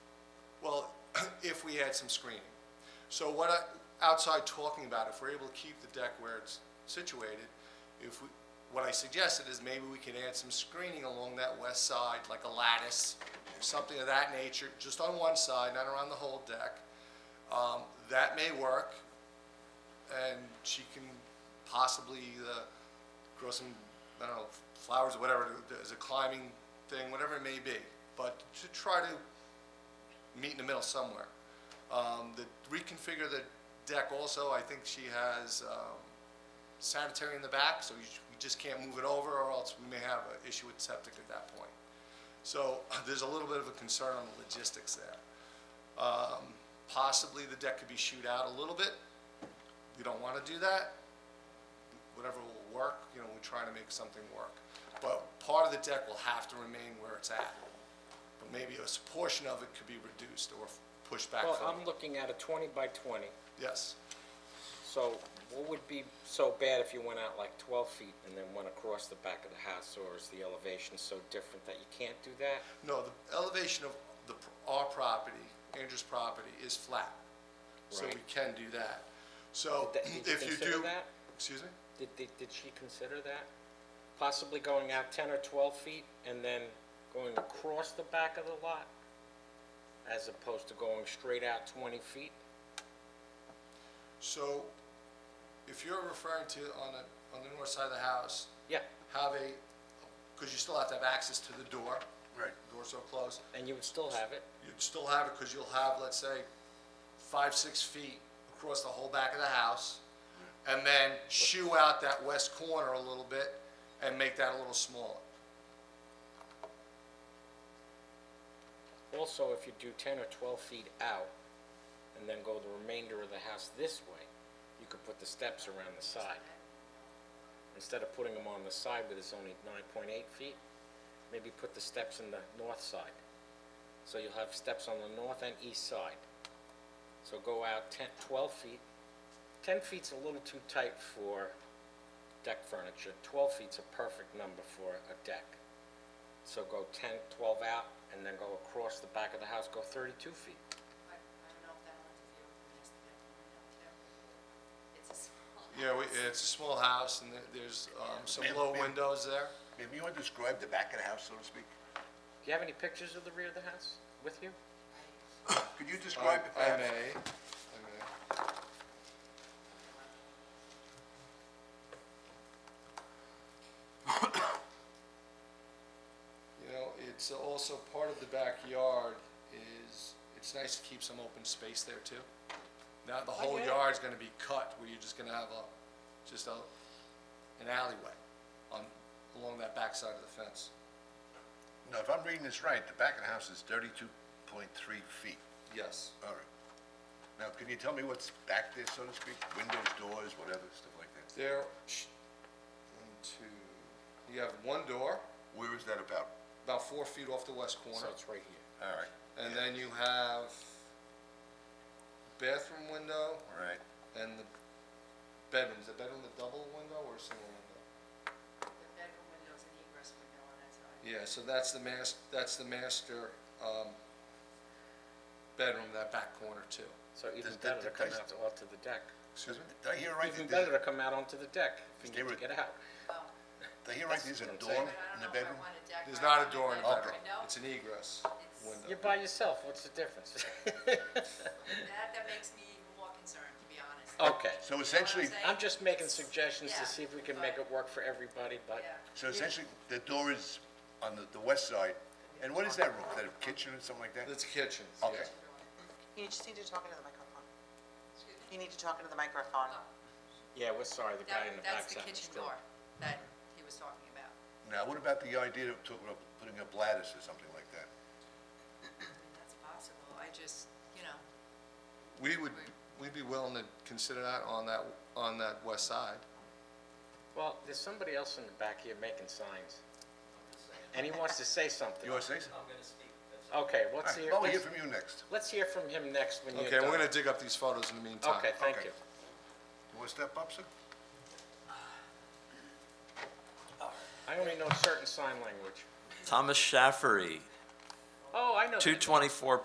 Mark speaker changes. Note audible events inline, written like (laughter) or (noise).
Speaker 1: (clears throat) if we had some screening. So what I, outside talking about, if we're able to keep the deck where it's situated, if we, what I suggested is maybe we can add some screening along that west side, like a lattice, or something of that nature, just on one side, not around the whole deck. Um, that may work, and she can possibly uh, grow some, I don't know, flowers or whatever, as a climbing thing, whatever it may be. But to try to meet in the middle somewhere. Um, the reconfigure the deck also, I think she has um, sanitary in the back, so you, we just can't move it over, or else we may have an issue with septic at that point. So (laughs) there's a little bit of a concern on the logistics there. Um, possibly the deck could be shoot out a little bit. We don't want to do that. Whatever will work, you know, we're trying to make something work. But part of the deck will have to remain where it's at. But maybe a s- portion of it could be reduced or f- pushed back
Speaker 2: Well,
Speaker 1: further.
Speaker 2: I'm looking at a 20 by 20,
Speaker 1: Yes.
Speaker 2: so what would be so bad if you went out like 12 feet and then went across the back of the house, or is the elevation so different that you can't do that?
Speaker 1: No, the elevation of the, pr- our property, Andrew's property, is flat. So we
Speaker 2: Right.
Speaker 1: can do that. So
Speaker 2: Did that- did you
Speaker 1: if you do.
Speaker 2: consider that?
Speaker 1: Excuse me?
Speaker 2: Did, did did she consider that? Possibly going out 10 or 12 feet and then going across the back of the lot, as opposed to going straight out 20 feet?
Speaker 1: So if you're referring to on the, on the north side of the house,
Speaker 2: Yeah,
Speaker 1: have a, because you still have to have access to the door,
Speaker 3: Right.
Speaker 1: doors are closed,
Speaker 2: and you would still have it.
Speaker 1: you'd still have it because you'll have, let's say, five, six feet across the whole back of the house, and then shoo out that west corner a little bit and make that a little smaller.
Speaker 2: Also, if you do 10 or 12 feet out and then go the remainder of the house this way, you could put the steps around the side. Instead of putting them on the side where there's only 9.8 feet, maybe put the steps in the north side. So you'll have steps on the north and east side. So go out 10, 12 feet. 10 feet's a little too tight for deck furniture. 12 feet's a perfect number for a deck. So go 10, 12 out, and then go across the back of the house, go 32 feet.
Speaker 4: I, I don't know if that will interfere with the next step coming up too. It's a small.
Speaker 1: You know, we- it's a small house and there- there's um, some
Speaker 3: Ma'am,
Speaker 1: low
Speaker 3: ma'am.
Speaker 1: windows there.
Speaker 3: Ma'am, you want to describe the back of the house, so to speak?
Speaker 2: Do you have any pictures of the rear of the house with you?
Speaker 3: Could you
Speaker 1: I
Speaker 3: describe it
Speaker 1: I
Speaker 3: perhaps?
Speaker 1: may, I may. (coughs) You know, it's also part of the backyard is, it's nice to keep some open space there too. Not the whole
Speaker 2: yeah.
Speaker 1: yard's gonna be cut where you're just gonna have a, just a, an alleyway on, along that backside of the fence.
Speaker 3: No, if I'm reading this right, the back of the house is thirty-two point three feet.
Speaker 1: Yes.
Speaker 3: All right. Now, can you tell me what's back there, so to speak? Windows, doors, whatever, stuff like that?
Speaker 1: There, sh- one, two, you have one door,
Speaker 3: Where is that about?
Speaker 1: about four feet off the west corner.
Speaker 2: So it's right here.
Speaker 3: All right.
Speaker 1: And then you have bathroom window
Speaker 3: All right.
Speaker 1: and the bedroom. Is the bedroom a double window or a single window?
Speaker 4: The bedroom windows and egress window on that side.
Speaker 1: Yeah, so that's the mas, that's the master, um, bedroom, that back corner too.
Speaker 2: So even
Speaker 3: Does that
Speaker 2: better to come
Speaker 3: depict-
Speaker 2: out onto the deck.
Speaker 1: Excuse me?
Speaker 3: Did I hear right
Speaker 2: Even
Speaker 3: that there's,
Speaker 2: better to come out onto the deck if
Speaker 3: They
Speaker 2: you
Speaker 3: were-
Speaker 2: need to get
Speaker 3: (laughs)
Speaker 2: out.
Speaker 4: Oh,
Speaker 3: did I hear right there's a
Speaker 2: what I'm
Speaker 3: door
Speaker 2: saying.
Speaker 4: but I
Speaker 3: in
Speaker 4: don't know
Speaker 3: the
Speaker 4: if I
Speaker 3: bedroom?
Speaker 4: want a deck.
Speaker 1: There's
Speaker 4: right
Speaker 1: not
Speaker 4: on
Speaker 1: a door in the
Speaker 4: that
Speaker 1: bedroom.
Speaker 4: window.
Speaker 1: It's an egress
Speaker 4: It's-
Speaker 2: You're
Speaker 1: window.
Speaker 2: by yourself, what's the
Speaker 3: (laughs)
Speaker 2: difference?
Speaker 4: That, that makes me even more concerned, to be honest.
Speaker 2: Okay.
Speaker 3: So essentially,
Speaker 4: saying?
Speaker 2: I'm just making suggestions
Speaker 4: Yeah,
Speaker 2: to see if we can make
Speaker 4: but-
Speaker 2: it work for everybody, but
Speaker 4: Yeah.
Speaker 3: so essentially, the door is on the, the west side. And what is that room? Is that a kitchen or something like that?
Speaker 1: It's a kitchen,
Speaker 3: Okay.
Speaker 1: yeah.
Speaker 5: You just need to talk into the microphone.
Speaker 4: Excuse me?
Speaker 5: You need to talk into the microphone.
Speaker 4: Oh,
Speaker 2: yeah, we're sorry, the guy in the
Speaker 4: That,
Speaker 2: back's
Speaker 4: that's the
Speaker 2: having a
Speaker 4: kitchen
Speaker 2: stroke.
Speaker 4: door that he was talking about.
Speaker 3: Now, what about the idea of talking about putting up lattice or something like that?
Speaker 4: I mean, that's possible. I just, you know,
Speaker 1: We would, we'd be willing to consider that on that, on that west side.
Speaker 2: Well, there's somebody else in the back here making signs. And he wants to say something.
Speaker 3: You want to say something?
Speaker 2: Okay,
Speaker 3: All
Speaker 2: let's
Speaker 3: right,
Speaker 2: hear,
Speaker 3: well, we'll hear
Speaker 2: let's-
Speaker 3: from you next.
Speaker 2: let's hear from him next when you're
Speaker 1: Okay,
Speaker 2: done.
Speaker 1: we're gonna dig up these photos in the meantime.
Speaker 2: Okay, thank
Speaker 3: Okay.
Speaker 2: you.
Speaker 3: You want to step up, sir?
Speaker 2: I only know certain sign language.
Speaker 6: Thomas Shaffery,
Speaker 2: Oh, I know. that.
Speaker 6: 224